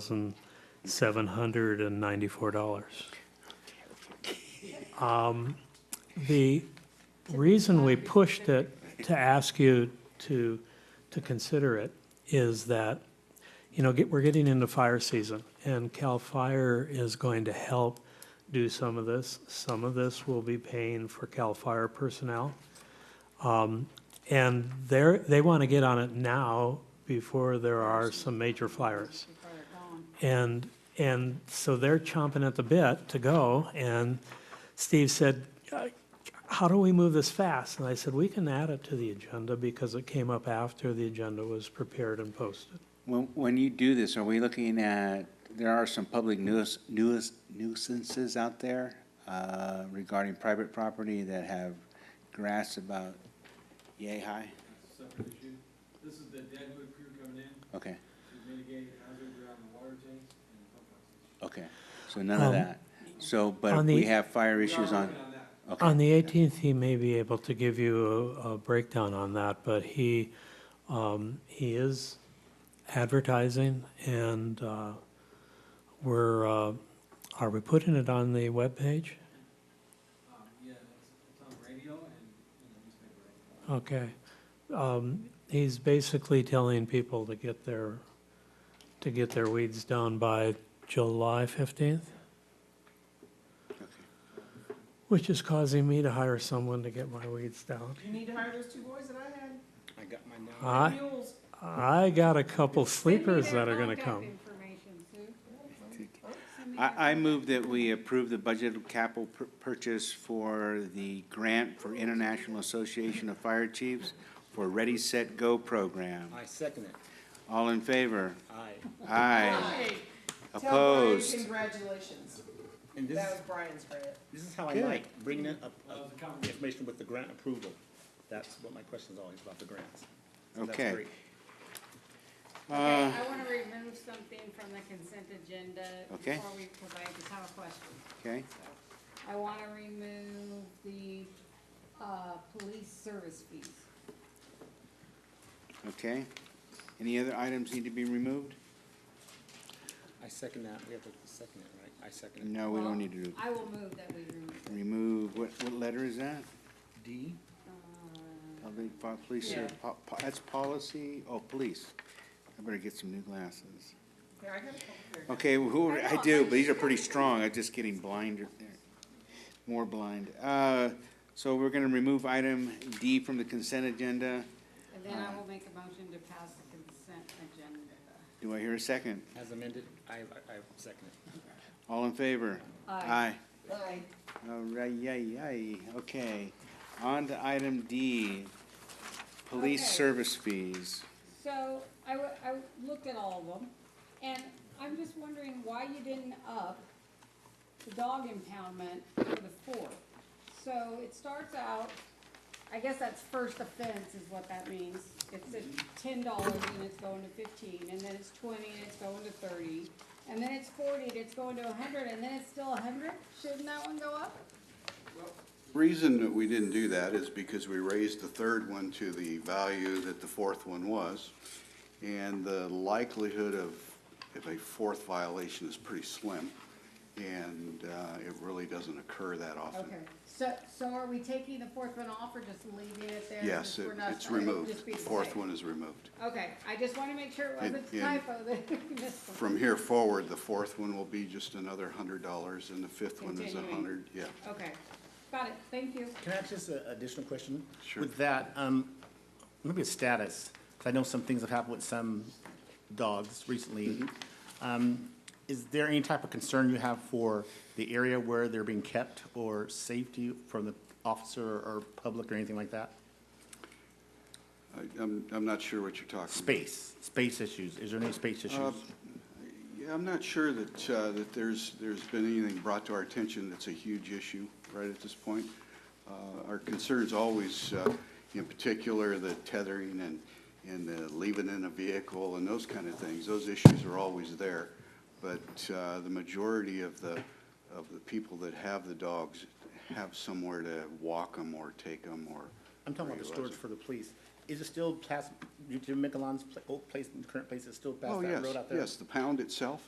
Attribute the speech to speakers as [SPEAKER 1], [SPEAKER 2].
[SPEAKER 1] thousand seven hundred and ninety-four dollars. Um, The reason we pushed it to ask you to, to consider it is that, you know, get, we're getting into fire season, and CAL FIRE is going to help do some of this. Some of this will be paying for CAL FIRE personnel. Um, And they're, they want to get on it now before there are some major fires. And, and so they're chomping at the bit to go, and Steve said, "Uh, how do we move this fast? And I said, we can add it to the agenda because it came up after the agenda was prepared and posted.
[SPEAKER 2] When, when you do this, are we looking at, there are some public nuis- nuis- nuisances out there uh, regarding private property that have grass about yay high?
[SPEAKER 3] separate issue. This is the Deadwood crew coming in
[SPEAKER 2] Okay,
[SPEAKER 3] to mitigate hazard around the water tanks and the pump houses.
[SPEAKER 2] okay, so none of
[SPEAKER 1] Um,
[SPEAKER 2] that. So, but
[SPEAKER 1] on
[SPEAKER 2] if we
[SPEAKER 1] the-
[SPEAKER 2] have fire issues
[SPEAKER 3] We are
[SPEAKER 2] on,
[SPEAKER 3] working on that.
[SPEAKER 2] okay.
[SPEAKER 1] On the 18th, he may be able to give you a, a breakdown on that, but he, um, he is advertising and, uh, we're, uh, are we putting it on the webpage?
[SPEAKER 3] Um, yeah, it's, it's on radio and, and the newspaper.
[SPEAKER 1] Okay. Um, he's basically telling people to get their, to get their weeds done by July fifteenth, which is causing me to hire someone to get my weeds down.
[SPEAKER 4] You need to hire those two boys that I had.
[SPEAKER 2] I got my
[SPEAKER 1] I,
[SPEAKER 4] Mules.
[SPEAKER 1] I got a couple
[SPEAKER 5] Send me
[SPEAKER 1] sleepers
[SPEAKER 5] their
[SPEAKER 1] that are gonna
[SPEAKER 5] contact
[SPEAKER 1] come.
[SPEAKER 5] information, Sue. Send me their-
[SPEAKER 2] I, I move that we approve the budget capital pur- purchase for the grant for International Association of Fire Chiefs for Ready, Set, Go program.
[SPEAKER 6] I second it.
[SPEAKER 2] All in favor?
[SPEAKER 6] Aye.
[SPEAKER 2] Aye.
[SPEAKER 4] Hey, Tell Brian
[SPEAKER 2] Opposed?
[SPEAKER 4] congratulations.
[SPEAKER 6] And this,
[SPEAKER 4] That was
[SPEAKER 6] is-
[SPEAKER 4] Brian's grant.
[SPEAKER 6] this is how I
[SPEAKER 2] Good.
[SPEAKER 6] like bringing up,
[SPEAKER 3] That
[SPEAKER 6] up
[SPEAKER 3] was a comment.
[SPEAKER 6] information with the grant approval. That's what my question's always about, the grants. So that's
[SPEAKER 2] Okay.
[SPEAKER 6] great.
[SPEAKER 2] Uh,
[SPEAKER 5] Okay, I want to remove something from the consent agenda
[SPEAKER 2] Okay.
[SPEAKER 5] before we, because I just have a question.
[SPEAKER 2] Okay,
[SPEAKER 5] So I want to remove the, uh, police service fees.
[SPEAKER 2] okay. Any other items need to be removed?
[SPEAKER 6] I second that. We have to second it, right? I second it.
[SPEAKER 2] No, Oh, we
[SPEAKER 5] Well,
[SPEAKER 2] don't need to
[SPEAKER 5] I will move that we remove it.
[SPEAKER 2] remove, what, what letter is that?
[SPEAKER 6] D?
[SPEAKER 5] Uh,
[SPEAKER 2] Public, po- police, or
[SPEAKER 4] Yeah.
[SPEAKER 2] po- po- that's policy, oh, police. I better get some new glasses.
[SPEAKER 4] Here, I got a couple here.
[SPEAKER 2] Okay, who, are- I do, but these are pretty strong, I'm just getting blinded there, more blind. Uh, so we're gonna remove item D from the consent agenda.
[SPEAKER 5] And then I will make a motion to pass the consent agenda.
[SPEAKER 2] Do I hear a second?
[SPEAKER 6] As amended, I, I I second it.
[SPEAKER 2] All in favor?
[SPEAKER 5] Aye.
[SPEAKER 2] Aye.
[SPEAKER 4] Aye.
[SPEAKER 2] All right, yay, yay, okay. On to item D, police
[SPEAKER 5] Okay.
[SPEAKER 2] service fees.
[SPEAKER 5] So I, w- I w- looked at all of them, and I'm just wondering why you didn't up the dog impoundment for the fourth. So it starts out, I guess that's first offense is what that means. It's at ten dollars and it's going to fifteen, and then it's twenty and it's going to thirty, and then it's forty and it's going to hundred, and then it's still hundred? Shouldn't that one go up?
[SPEAKER 7] Reason that we didn't do that is because we raised the third one to the value that the fourth one was. And the likelihood of, of a fourth violation is pretty slim. And uh, it really doesn't occur that often.
[SPEAKER 5] Okay, so, so are we taking the fourth one off or just leaving it there?
[SPEAKER 7] Yes,
[SPEAKER 5] Just
[SPEAKER 7] it-
[SPEAKER 5] we're not-
[SPEAKER 7] it's
[SPEAKER 5] it'll
[SPEAKER 7] removed.
[SPEAKER 5] just be
[SPEAKER 7] The
[SPEAKER 5] the
[SPEAKER 7] fourth
[SPEAKER 5] same?
[SPEAKER 7] one is removed.
[SPEAKER 5] Okay, I just want to make sure it
[SPEAKER 7] And-
[SPEAKER 5] wasn't a
[SPEAKER 7] and-
[SPEAKER 5] typo that we missed one.
[SPEAKER 7] From here forward, the fourth one will be just another hundred dollars and the fifth one is a
[SPEAKER 5] Continuing.
[SPEAKER 7] hundred, yeah.
[SPEAKER 5] Okay, got it, thank you.
[SPEAKER 6] Can I ask just an additional question?
[SPEAKER 7] Sure.
[SPEAKER 6] With that, um, maybe a status, 'cause I know some things have happened with some dogs recently. Um, is there any type of concern you have for the area where they're being kept or safety from the officer or public or anything like that?
[SPEAKER 7] I, I'm, I'm not sure what you're talking about.
[SPEAKER 6] Space, Uh, space issues. Is there any space issues?
[SPEAKER 7] Yeah, I'm not sure that, uh, that there's, there's been anything brought to our attention that's a huge issue right at this point. Uh, Our concern's always, uh, in particular, the tethering and, and the leaving in a vehicle and those kind of things. Those issues are always there. But uh, the majority of the, of the people that have the dogs have somewhere to walk them or take them or.
[SPEAKER 6] I'm talking about the storage for the police. is it still past, Jim Mikalon's pla- old place, current place is still past
[SPEAKER 7] Oh,
[SPEAKER 6] that
[SPEAKER 7] yes,
[SPEAKER 6] road out there?
[SPEAKER 7] yes, the pound itself